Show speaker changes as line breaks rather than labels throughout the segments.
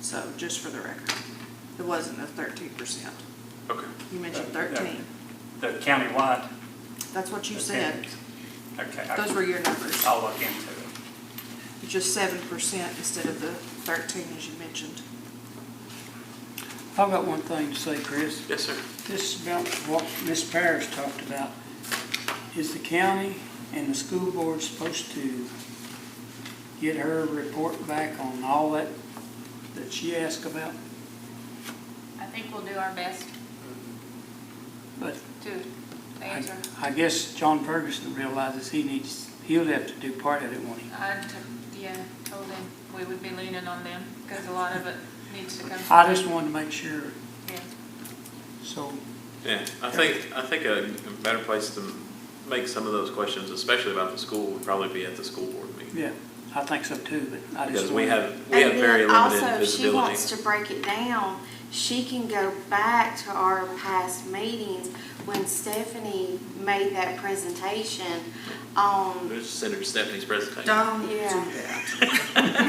so, just for the record. It wasn't the thirteen percent.
Okay.
You mentioned
Uh, yeah.
thirteen.
The countywide?
That's what you said.
Okay. I-
Those were your numbers.
I'll look into it.
It's Just seven percent instead of the thirteen as you mentioned.
I've got one thing to say, Chris.
Yes, sir.
This is about what Ms. Parrish talked about. Is the county and the school board supposed to get her report back on all that, that she asked about?
I think we'll do our best
But
to
I,
answer.
I guess John Ferguson realizes he needs, he'll have to do part of it when he.
I, t- yeah, told him we would be leaning on them because a lot of it needs to come.
I just wanted to make sure,
Yeah.
so
Yeah, I think, I think a better place to make some of those questions, especially about the school, would probably be at the school board meeting.
Yeah, I think so too, but I
Because
just
we
wanted-
have, we have very
And then
limited
Also, if she
visibility.
wants to break it down, she can go back to our past meetings when Stephanie made that presentation um, on,
Let's Send her Stephanie's presentation.
Don't do
Yeah.
that.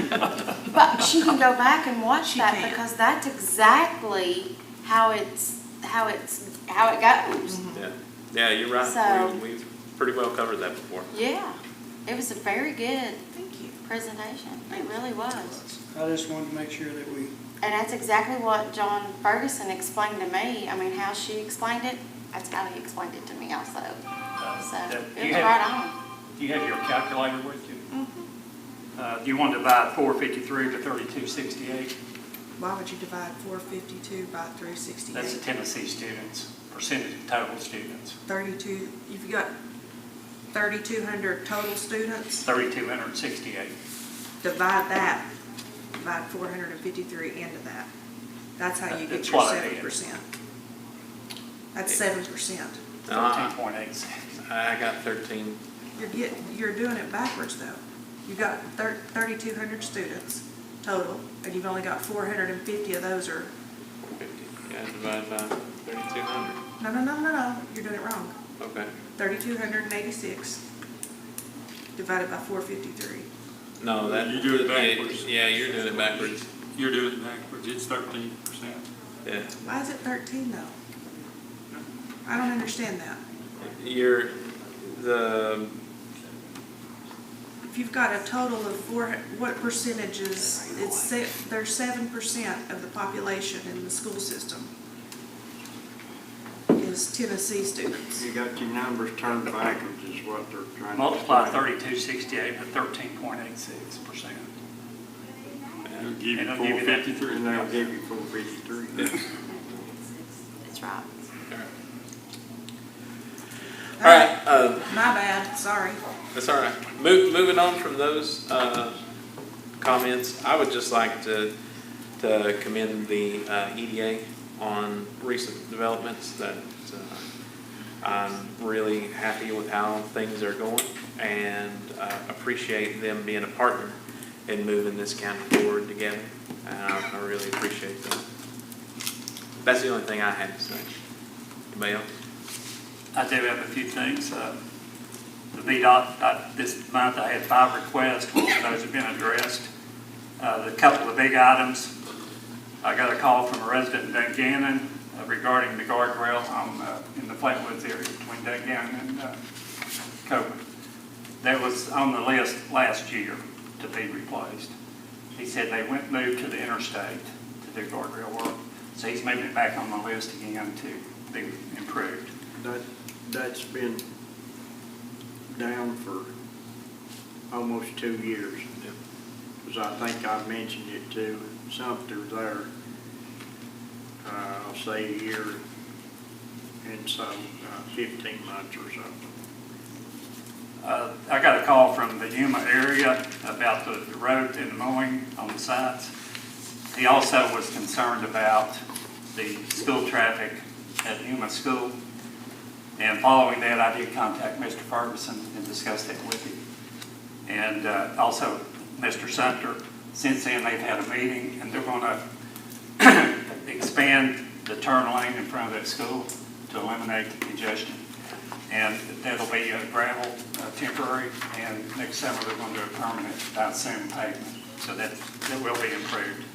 but she can go back and watch
She
that
can.
because that's exactly how it's, how it's, how it goes.
Mm-hmm.
Yeah, yeah, you're
So-
right. We- We've pretty well covered that before.
Yeah, it was a very good
Thank you.
presentation. It really was.
I just wanted to make sure that we,
And that's exactly what John Ferguson explained to me. I mean, how she explained it, that's how he explained it to me also. So
Uh, do
it
you
was
have-
right
Do you have your calculator with you?
on.
Uh, You want to divide 453 to 3268?
Why would you divide four fifty-two by three
That's the
sixty-eight?
Tennessee students, percentage of total students,
Thirty-two, you've got thirty-two hundred total students,
3,268.
divide that by four hundred and fifty-three into that. That's how you get
Uh, That's
your
what I
seven
did.
percent. That's seven percent.
Uh,
13.86.
I got thirteen,
You're getting, you're doing it backwards though. You've got thir- 3,200 students total, and you've only got 450 of those are,
fifty, yeah, divided by thirty-two hundred,
no, no, no, no, no, you're doing it wrong.
okay.
3,286 divided by 453.
No, that.
You do it
yeah,
backwards.
Yeah, you're doing it backwards,
You're doing it backwards, it's thirteen percent.
yeah.
Why is it 13 though? I don't understand that.
You're, the,
If you've got a total of four, what percentages, it's, se- there's 7% of the population in the school system is Tennessee students.
You got your numbers turned backwards is what they're trying to.
Multiply
explain.
3268 by 13.86%.
It'll give you
And I'll
four
give you that.
fifty-three, and they'll give you four fifty-three.
That's right.
all right, uh,
My bad, sorry.
That's all right. Mo- moving on from those uh, comments, I would just like to to commend the uh, EDA on recent developments. That uh, I'm really happy with how things are going and uh, appreciate them being a partner in moving this county forward together. And I, I really appreciate that. That's the only thing I had to say. Anybody else?
I do have a few things. Uh, The VDOT, uh, this month I had five requests, most of those have been addressed. Uh, The couple of big items, I got a call from a resident in Dungannon uh, regarding the guardrail on, uh, in the Flatwoods area between Dungannon and uh, Coburn. That was on the list last year to be replaced. He said they went, moved to the interstate to do guardrail work, so he's moving it back on the list again to be improved.
That, that's been down for almost two years. Because I think I mentioned it to Sumter there, uh, I'll say a year and so, uh, fifteen months or something.
Uh, I got a call from the Yuma area about the the road and mowing on the sites. He also was concerned about the school traffic at Yuma School. And following that, I did contact Mr. Ferguson and discuss that with him. And uh, also Mr. Sumter. Since then, they've had a meeting and they're going to expand the turn lane in front of that school to eliminate the congestion. And that'll be a gravel, uh, temporary, and next summer they're going to do a permanent, I assume, pavement. So that, that will be improved.